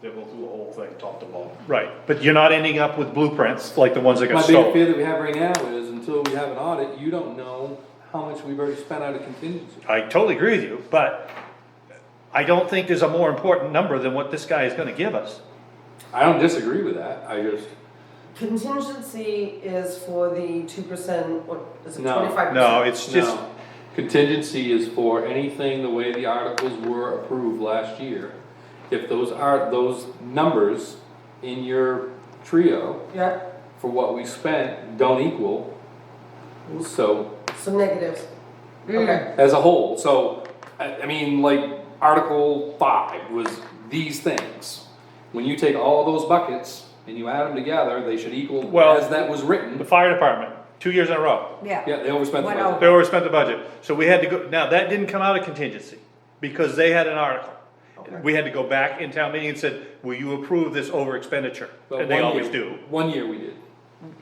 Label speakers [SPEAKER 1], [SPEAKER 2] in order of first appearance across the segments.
[SPEAKER 1] They'll go through the whole thing, top to bottom.
[SPEAKER 2] Right, but you're not ending up with blueprints like the ones that got
[SPEAKER 3] My big
[SPEAKER 2] stolen.
[SPEAKER 3] fear that we have right now is until we have an audit, you don't know how much we've already spent out of contingency.
[SPEAKER 2] I totally agree with you, but I don't think there's a more important number than what this guy is gonna give us.
[SPEAKER 3] I don't disagree with that, I just,
[SPEAKER 4] Contingency is for the two percent, what, is it
[SPEAKER 3] No.
[SPEAKER 4] twenty-five percent?
[SPEAKER 2] No, it's just,
[SPEAKER 3] no. Contingency is for anything the way the articles were approved last year. If those are, those numbers in your trio
[SPEAKER 4] Yeah,
[SPEAKER 3] for what we spent don't equal, so,
[SPEAKER 4] some negatives.
[SPEAKER 5] Mm.
[SPEAKER 4] Okay,
[SPEAKER 3] as a whole, so, I, I mean, like, Article five was these things. When you take all those buckets and you add them together, they should equal,
[SPEAKER 2] Well-
[SPEAKER 3] as that was written,
[SPEAKER 2] the fire department, two years in a row,
[SPEAKER 4] yeah.
[SPEAKER 3] Yeah, they overspent the
[SPEAKER 4] Went
[SPEAKER 3] budget.
[SPEAKER 2] they overspent the budget, so we had to go, now, that didn't come out of contingency, because they had an article. We had to go back in town meeting and said, will you approve this over expenditure?
[SPEAKER 3] But
[SPEAKER 2] And they
[SPEAKER 3] one
[SPEAKER 2] always
[SPEAKER 3] year-
[SPEAKER 2] do.
[SPEAKER 3] One year we did.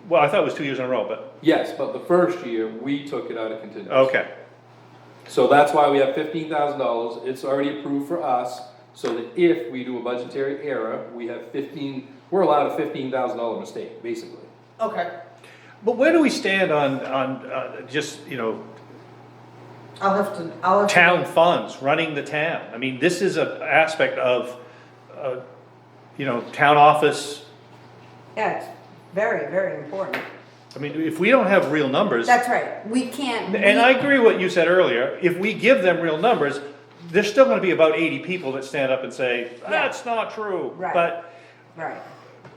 [SPEAKER 2] Well, I thought it was two years in a row, but,
[SPEAKER 3] Yes, but the first year, we took it out of contingency.
[SPEAKER 2] okay,
[SPEAKER 3] So that's why we have fifteen thousand dollars, it's already approved for us, so that if we do a budgetary error, we have fifteen, we're allowed a fifteen thousand dollar mistake, basically.
[SPEAKER 4] Okay,
[SPEAKER 2] but where do we stand on, on, uh, just, you know,
[SPEAKER 4] I'll have to, I'll have to.
[SPEAKER 2] town funds, running the town. I mean, this is a aspect of, uh, you know, town office.
[SPEAKER 5] Yeah, it's very, very important.
[SPEAKER 2] I mean, if we don't have real numbers,
[SPEAKER 5] That's right.
[SPEAKER 6] We can't.
[SPEAKER 2] and I
[SPEAKER 6] we-
[SPEAKER 2] agree what you said earlier, if we give them real numbers, there's still gonna be about eighty people that stand up and say, that's not true.
[SPEAKER 5] Right.
[SPEAKER 2] But
[SPEAKER 5] Right.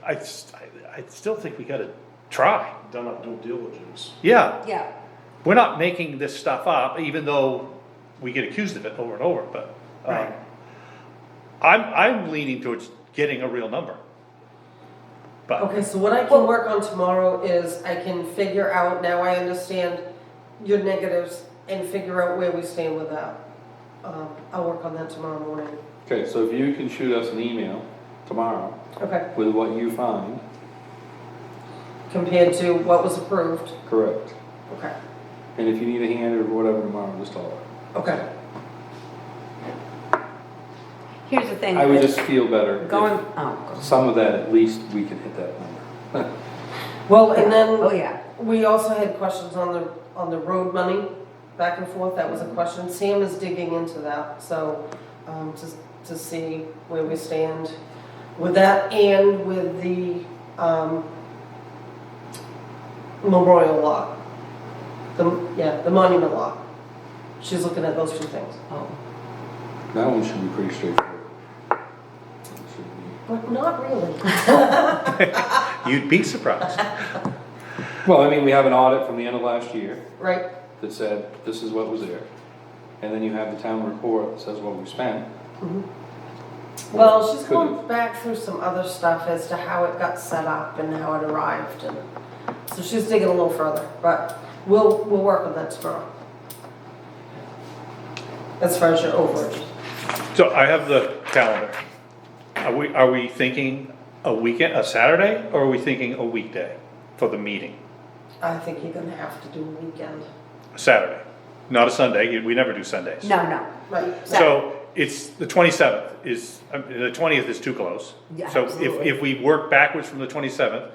[SPEAKER 2] I, s- I- I still think we gotta try.
[SPEAKER 1] Done our due diligence.
[SPEAKER 2] Yeah,
[SPEAKER 5] Yeah.
[SPEAKER 2] we're not making this stuff up, even though we get accused of it over and over, but, um,
[SPEAKER 5] Right.
[SPEAKER 2] I'm, I'm leaning towards getting a real number. But.
[SPEAKER 4] Okay, so what I can work on tomorrow is I can figure out, now I understand your negatives and figure out where we stand with that. Um, I'll work on that tomorrow morning.
[SPEAKER 3] Okay, so if you can shoot us an email tomorrow
[SPEAKER 4] Okay,
[SPEAKER 3] with what you find.
[SPEAKER 4] compared to what was approved.
[SPEAKER 3] Correct.
[SPEAKER 4] Okay,
[SPEAKER 3] And if you need a hand or whatever tomorrow, just call her.
[SPEAKER 4] okay.
[SPEAKER 5] Here's the thing.
[SPEAKER 3] I would
[SPEAKER 5] with
[SPEAKER 3] just feel better
[SPEAKER 5] Going,
[SPEAKER 3] if
[SPEAKER 5] oh,
[SPEAKER 3] some of that, at least, we can hit that number.
[SPEAKER 4] Well, and
[SPEAKER 5] oh
[SPEAKER 4] then
[SPEAKER 5] yeah.
[SPEAKER 4] we also had questions on the, on the road money, back and forth, that was a question. Sam is digging into that, so, um, to, to see where we stand with that and with the, um, memorial lot. The, yeah, the monument lot. She's looking at those two things.
[SPEAKER 5] Oh.
[SPEAKER 3] That one should be pretty straightforward. It should be-
[SPEAKER 4] But not really.
[SPEAKER 2] You'd be surprised.
[SPEAKER 3] Well, I mean, we have an audit from the end of last year
[SPEAKER 4] Right,
[SPEAKER 3] that said, this is what was there. And then you have the town report that says what we spent.
[SPEAKER 4] Mm-hmm. well, she's
[SPEAKER 3] Could-
[SPEAKER 4] going back through some other stuff as to how it got set up and how it arrived and, so she's digging a little further, but we'll, we'll work on that tomorrow. As far as your overage.
[SPEAKER 2] So I have the calendar. Are we, are we thinking a weekend, a Saturday, or are we thinking a weekday for the meeting?
[SPEAKER 4] I think you're gonna have to do a weekend.
[SPEAKER 2] Saturday, not a Sunday, we never do Sundays.
[SPEAKER 5] No, no.
[SPEAKER 4] Right.
[SPEAKER 2] So it's, the twenty-seventh is, I mean, the twentieth is too close.
[SPEAKER 5] Yeah,
[SPEAKER 2] So
[SPEAKER 5] absolutely.
[SPEAKER 2] if, if we work backwards from the twenty-seventh,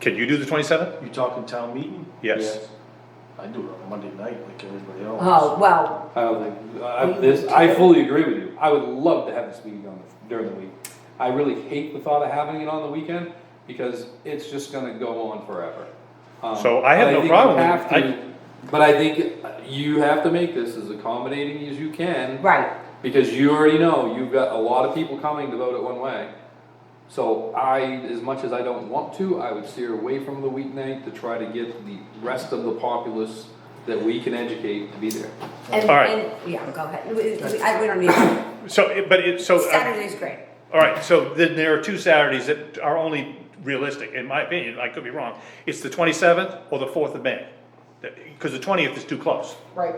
[SPEAKER 2] can you do the twenty-seventh?
[SPEAKER 1] You talking town meeting?
[SPEAKER 2] Yes.
[SPEAKER 1] I do it on Monday night like everybody else.
[SPEAKER 5] Oh well.
[SPEAKER 3] I don't think, I, this, I fully agree with you. I would love to have this meeting on, the- during the week. I really hate the thought of having it on the weekend because it's just gonna go on forever. Um,
[SPEAKER 2] So I have
[SPEAKER 3] but
[SPEAKER 2] no
[SPEAKER 3] think you
[SPEAKER 2] problem with it.
[SPEAKER 3] have
[SPEAKER 2] I-
[SPEAKER 3] to- But I think you have to make this as accommodating as you can.
[SPEAKER 5] Right.
[SPEAKER 3] Because you already know, you've got a lot of people coming to vote it one way. So I, as much as I don't want to, I would steer away from the weeknight to try to get the rest of the populace that we can educate to be there.
[SPEAKER 5] And,
[SPEAKER 2] All right.
[SPEAKER 5] and yeah. Go ahead. We, we, I, we don't need. To.
[SPEAKER 2] So, it- but it, so. uh,
[SPEAKER 5] Saturday's great.
[SPEAKER 2] All right, so then there are two Saturdays that are only realistic, in my opinion, I could be wrong. It's the twenty-seventh or the fourth of May, because the twentieth is too close.
[SPEAKER 4] Right.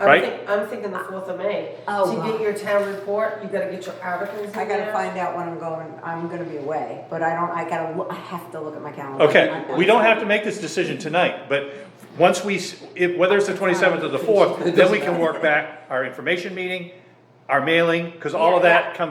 [SPEAKER 4] I'm
[SPEAKER 2] Right?
[SPEAKER 4] think, I'm thinking the fourth of May.
[SPEAKER 5] Oh,
[SPEAKER 4] To
[SPEAKER 5] wow.
[SPEAKER 4] get your town report, you gotta get your articles in
[SPEAKER 5] I gotta
[SPEAKER 4] there.
[SPEAKER 5] find out when I'm going. I'm gonna be away, but I don't. I gotta. Look, I have to look at my calendar.
[SPEAKER 2] Okay,
[SPEAKER 5] I-
[SPEAKER 2] we don't have to make this decision tonight, but once we, s- if, whether it's the twenty-seventh or the fourth, then we can work back our information meeting, our mailing, because all of
[SPEAKER 5] Yeah,
[SPEAKER 2] that comes